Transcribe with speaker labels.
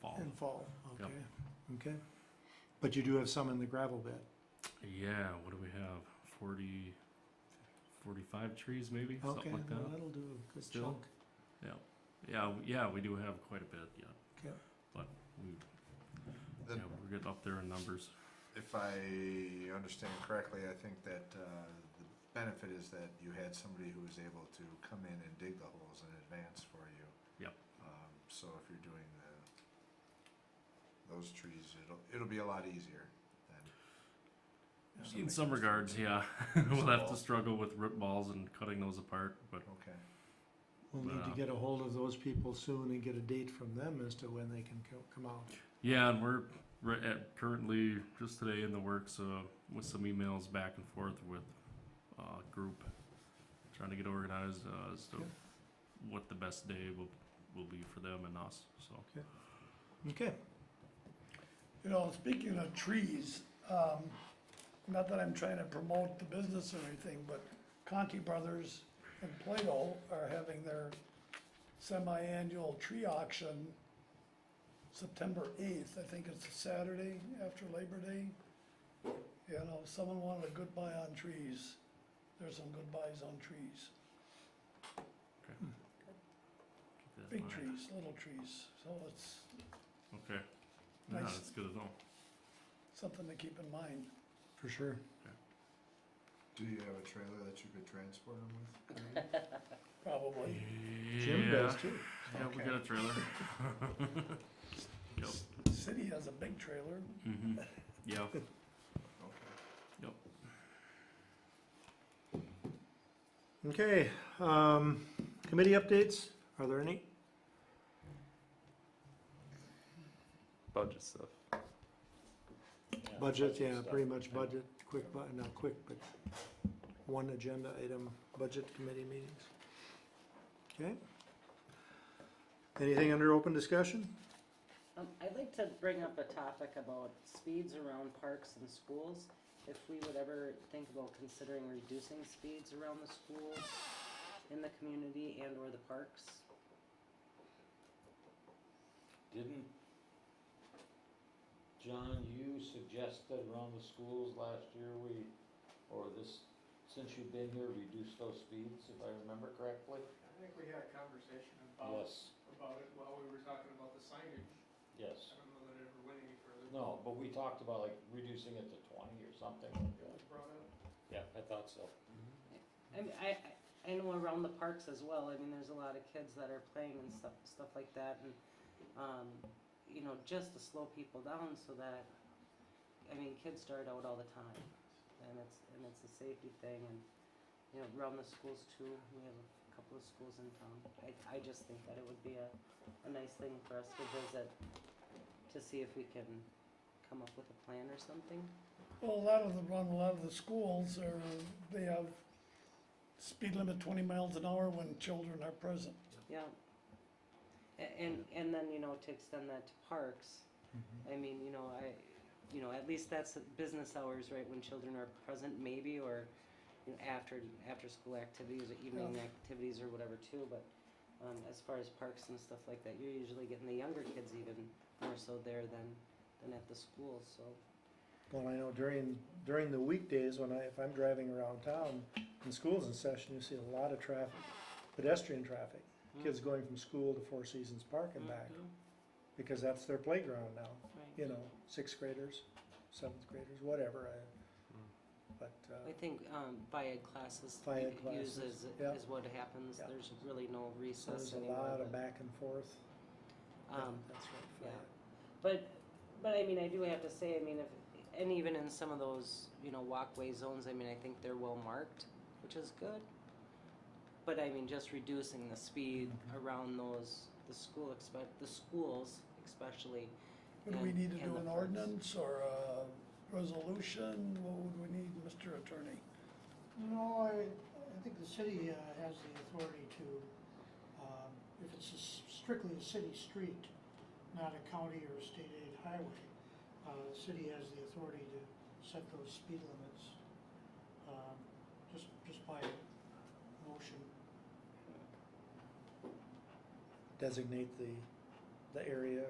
Speaker 1: fall.
Speaker 2: and fall,
Speaker 1: Yep.
Speaker 2: okay, okay. But you do have some in the gravel bed, Hmm.
Speaker 1: Yeah, what do we have? 40, 45 trees maybe?
Speaker 2: okay,
Speaker 1: Something like
Speaker 2: well,
Speaker 1: that.
Speaker 2: that'll do a good
Speaker 1: Still.
Speaker 2: chunk,
Speaker 1: Yeah, w- yeah, we do have quite a bit, yeah.
Speaker 2: okay.
Speaker 1: We,
Speaker 3: The-
Speaker 1: yeah, we're getting up there in numbers.
Speaker 3: If I understand correctly, I think that uh, the benefit is that you had somebody who was able to come in and dig the holes in advance for you.
Speaker 1: Yep.
Speaker 3: Um, So if you're doing the, those trees, it'll, it'll be a lot easier than. if
Speaker 1: In
Speaker 3: somebody
Speaker 1: some
Speaker 3: comes
Speaker 1: regards,
Speaker 3: in.
Speaker 1: yeah, we'll have to
Speaker 3: Small.
Speaker 1: struggle with root balls and cutting those apart, but
Speaker 3: Okay,
Speaker 2: We'll need to
Speaker 1: Wow.
Speaker 2: get a hold of those people soon and get a date from them as to when they can co- come out.
Speaker 1: Yeah, and we're right at currently just today in the works uh, with some emails back and forth with uh, group trying to get organized uh, as to
Speaker 2: Okay.
Speaker 1: what the best day will will be for them and us. So
Speaker 2: Okay,
Speaker 4: You know, speaking of trees, um, not that I'm trying to promote the business or anything, but Conti Brothers and Plato are having their semi-annual tree auction September eighth, I think it's a Saturday after Labor Day. You know, if someone wanted a good buy on trees, there's some good buys on trees,
Speaker 1: keep that in
Speaker 4: big
Speaker 1: mind.
Speaker 4: trees, little trees, so it's
Speaker 1: Okay. Yeah,
Speaker 4: Nice.
Speaker 1: that's good at all.
Speaker 4: something to keep in mind.
Speaker 2: for sure.
Speaker 3: do you have a trailer that you could transport them with?
Speaker 4: Probably.
Speaker 2: Jim
Speaker 1: yeah.
Speaker 2: does too.
Speaker 1: Yeah, we
Speaker 3: Okay.
Speaker 1: got a trailer. yep.
Speaker 4: City has a big trailer.
Speaker 1: hmm Yeah.
Speaker 3: Okay.
Speaker 2: Okay, um, committee updates, are there any?
Speaker 5: budget stuff.
Speaker 2: Budget, yeah, pretty much budget, quick, bu- not quick, but one agenda item, budget committee meetings. Okay? Anything under open discussion?
Speaker 6: Um, I'd like to bring up a topic about speeds around parks and schools. If we would ever think about considering reducing speeds around the schools, in the community and or the parks.
Speaker 7: Didn't, John, you suggest that around the schools last year, we, or this, since you've been here, reduce those speeds, if I remember correctly?
Speaker 8: I think we had a conversation about,
Speaker 7: Yes,
Speaker 8: about it while we were talking about the signage.
Speaker 7: yes.
Speaker 8: I don't know that it ever went any further.
Speaker 7: No, but we talked about like reducing it to twenty or something like
Speaker 8: It
Speaker 7: that.
Speaker 8: was brought up.
Speaker 7: Yeah, I thought so.
Speaker 6: I mean, I, I- I know around the parks as well, I mean, there's a lot of kids that are playing and stuff, stuff like that and, um, you know, just to slow people down so that, I mean, kids start out all the time. And it's, and it's a safety thing and, you know, around the schools too, we have a couple of schools in town. I, I just think that it would be a, a nice thing for us to visit, to see if we can come up with a plan or something.
Speaker 4: Well, a lot of the, run, a lot of the schools are, they have speed limit twenty miles an hour when children are present.
Speaker 6: Yeah. A- And, and then, you know, to extend that to parks,
Speaker 2: Mm-hmm.
Speaker 6: I mean, you know, I, you know, at least that's business hours, right, when children are present maybe, or, you know, after, after-school activities or evening activities or whatever too, but, um, as far as parks and stuff like that, you're usually getting the younger kids even more so there than, than at the school, so.
Speaker 2: Well, I know during, during the weekdays, when I, if I'm driving around town and school's in session, you see a lot of traffic, pedestrian traffic.
Speaker 6: Mm.
Speaker 2: Kids going from school to Four Seasons Park and back,
Speaker 6: Mm-hmm.
Speaker 2: because that's their playground now, you know, sixth graders, seventh graders, whatever, I, but,
Speaker 6: I
Speaker 2: uh,
Speaker 6: think, um, bi-ed classes
Speaker 2: Bi-ed
Speaker 6: u-
Speaker 2: classes,
Speaker 6: uses
Speaker 2: yeah.
Speaker 6: is what happens,
Speaker 2: Yeah.
Speaker 6: there's really no
Speaker 2: so
Speaker 6: recess
Speaker 2: there's a
Speaker 6: anymore,
Speaker 2: lot of
Speaker 6: but,
Speaker 2: back and forth. Yeah,
Speaker 6: um,
Speaker 2: That's right. for
Speaker 6: yeah.
Speaker 2: that.
Speaker 6: But, but I mean, I do have to say, I mean, if, and even in some of those, you know, walkway zones, I mean, I think they're well marked, which is good. But I mean, just reducing the speed
Speaker 4: Mm-hmm.
Speaker 6: around those, the school expect, the schools especially.
Speaker 4: Would we
Speaker 6: and-
Speaker 4: need to
Speaker 6: and
Speaker 4: do
Speaker 6: the
Speaker 4: an
Speaker 6: parks.
Speaker 4: ordinance or a resolution? What would we need, Mr. Attorney?
Speaker 9: No, I, I think the city uh, has the authority to, um, if it's a s- strictly a city street, not a county or a state aid highway, uh, the city has the authority to set those speed limits, um, just, just by motion.
Speaker 2: Designate the, the area